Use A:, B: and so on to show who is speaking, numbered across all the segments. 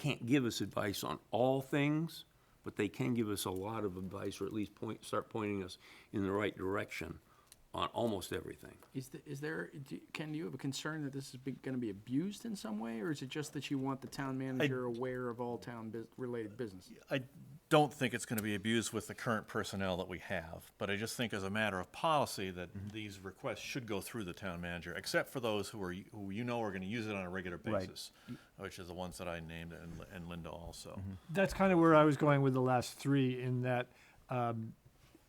A: can't give us advice on all things, but they can give us a lot of advice, or at least point, start pointing us in the right direction on almost everything.
B: Is, the, is there, do- Ken, do you have a concern that this is going to be abused in some way, or is it just that you want the town manager aware of all town bus- related business?
C: I don't think it's going to be abused with the current personnel that we have, but I just think as a matter of policy that these requests should go through the town manager, except for those who are, who you know are going to use it on a regular basis, which is the ones that I named and Li- and Linda also.
D: that's kind of where I was going with the last three in that um,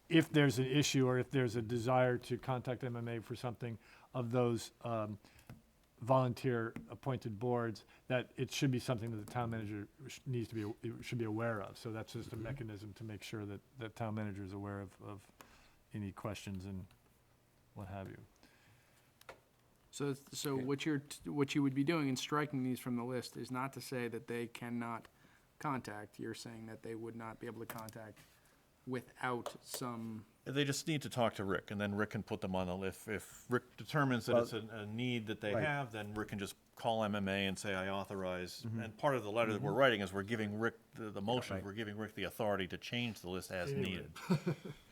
D: if there's an issue or if there's a desire to contact MMA for something of those um, volunteer appointed boards, that it should be something that the town manager sh- needs to be, should be aware of. So that's just a mechanism to make sure that the town manager is aware of, of any questions and what have you.
B: So, it's- so what you're, t- what you would be doing in striking these from the list is not to say that they cannot contact, you're saying that they would not be able to contact without some,
C: They just need to talk to Rick, and then Rick can put them on the list. If Rick determines that it's a, a need that they have, then Rick can just call MMA and say, I authorize.
E: Mm-hmm.
C: And part of the letter that we're writing is we're giving Rick, the, the motion, we're giving Rick the authority to change the list as needed.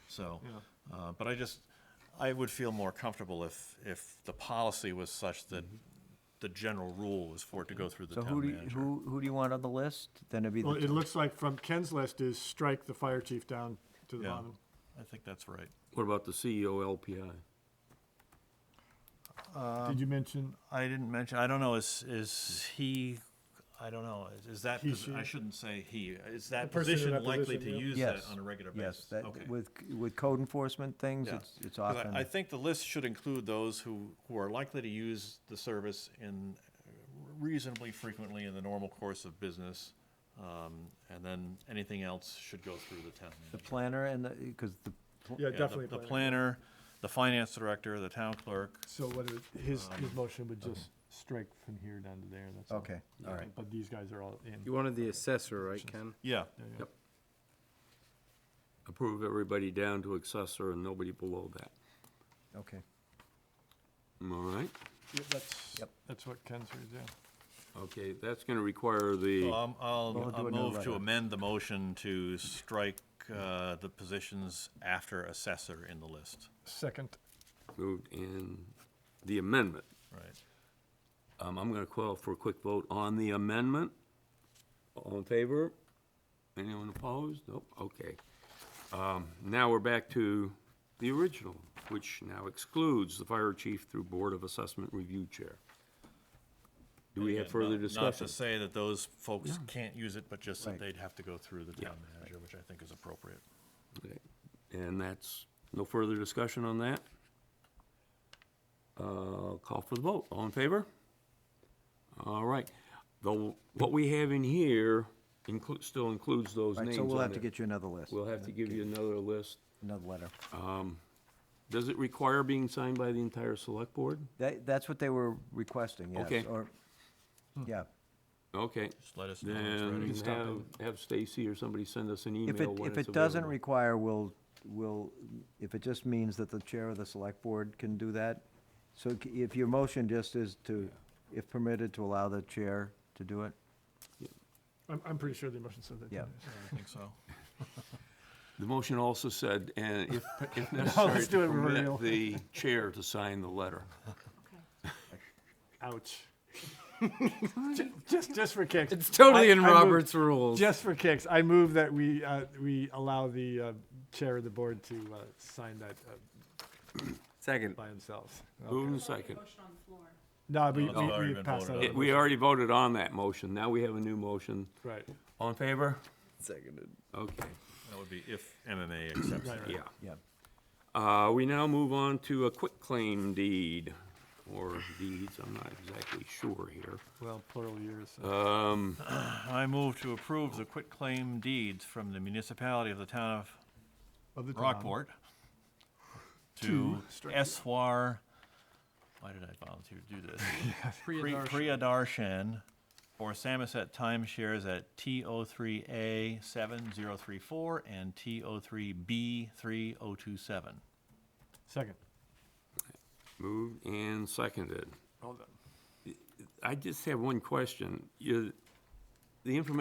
C: So, uh, but I just, I would feel more comfortable if, if the policy was such that the general rule was for it to go through the
E: Mm-hmm. So
C: town
E: who do you,
C: manager.
E: who, who do you want on the list? Then it'd be
D: Well,
E: the,
D: it
E: town-
D: looks like from Ken's list is strike the fire chief down to the
C: Yeah.
D: bottom.
C: I think that's right.
A: What about the E CEO LPI?
D: Did you mention?
C: I didn't mention, I don't know, is, is he, I don't know, is- is that,
D: Hmm. He,
C: posi- I
D: she.
C: shouldn't say he, is that
D: person in
C: position
D: that
C: likely to
D: position, yeah.
C: use that
E: yes.
C: on a regular
E: yes,
C: basis?
E: that-
C: Okay.
E: With, with code enforcement things,
C: Yeah.
E: it's, it's
C: 'Cause I- I
E: often,
C: think the list should include those who, who are likely to use the service in uh, reasonably frequently in the normal course of business. um, And then anything else should go through the town
E: the
C: manager.
E: planner and the, because the, pl-
D: Yeah,
C: Yeah, the-
D: definitely. uh,
C: The
D: planning.
C: planner, the finance director, the town clerk,
D: So what is, his, his motion would just strike from here down to there, that's all.
E: okay, all right.
D: But these guys are all in.
F: You wanted the assessor, right, Ken?
C: yeah.
A: Approve everybody down to accessor and nobody below that.
E: Okay.
A: All right?
D: Yeah, That's,
E: Yep.
D: that's what Ken's here, yeah.
A: Okay, that's gonna require the,
C: Um, I'll,
E: We'll do
C: I'll
E: another
C: move to
E: letter.
C: amend the motion to strike, uh, the positions after assessor in the list,
D: Second,
A: moved in the amendment.
C: right?
A: Um, I'm gonna call for a quick vote on the amendment. All in favor? Anyone opposed? Nope, okay. Um, now we're back to the original, which now excludes the fire chief through Board of Assessment Review Chair. Do we have
C: Again,
A: further
C: not- Not
A: discussion?
C: to say that those folks can't use it, but just that
E: Right.
C: they'd have to go through the town manager, which I think is appropriate.
A: Okay. And that's, no further discussion on that? Uh, Call for the vote, all in favor? All right, though, what we have in here includes, still includes those
E: All right,
A: names
E: so we'll
A: on
E: have to
A: there.
E: get you another list,
A: We'll have to give you another list. Um,
E: another letter.
A: Does it require being signed by the entire select board?
E: That, that's what they were requesting,
A: Okay.
E: yes, or,
C: Hmm.
E: yeah.
A: Okay,
C: Just let us know when it's ready.
A: then
D: stop
A: have, have Stacy or somebody send us an
E: If it,
A: email when
E: if
A: it's
E: it doesn't
A: available.
E: require, we'll, we'll, if it just means that the chair of the select board can do that. So c- if your motion just is to, if permitted, to allow the chair to do it,
D: I'm, I'm pretty sure the motion said that.
E: Yeah.
D: didn't it?
C: I think so.
A: The motion also said, and if, if necessary,
D: let's do
A: to
D: it real.
A: permit the chair to sign the letter.
D: Ouch. Ju- Just, just for kicks.
F: It's totally
D: I-
F: in
D: I move-
F: Robert's rules.
D: Just for kicks, I move that we, uh, we allow the, uh, chair of the board to, uh, sign that, uh,
F: Second.
D: by themselves.
A: Moved and second.
G: Motion on the floor.
D: No, we,
C: it's already
D: we, we
C: been voted
D: passed that.
C: on.
A: It-
D: other
A: We
D: motion.
A: already voted on that motion, now we have a new motion.
D: Right,
A: All in favor?
F: Seconded.
A: Okay,
C: That would be if MMA accepts
D: right,
C: it.
D: right.
A: yeah.
E: yeah.
A: Uh, we now move on to a quick claim deed, or deeds, I'm not exactly sure here.
D: Well, plural years. so-
C: Uh,
A: Um,
C: I move to approve the quitclaim deeds from the municipality of the town of
D: of the town.
C: Rockport to Eswar, why did I volunteer to do this? Pri- Priyadarshan for Samoset timeshares at T03A 7034 and T03B 3027.
D: Second.
A: Moved and seconded.
D: Hold on.
A: I just have one question. You- the information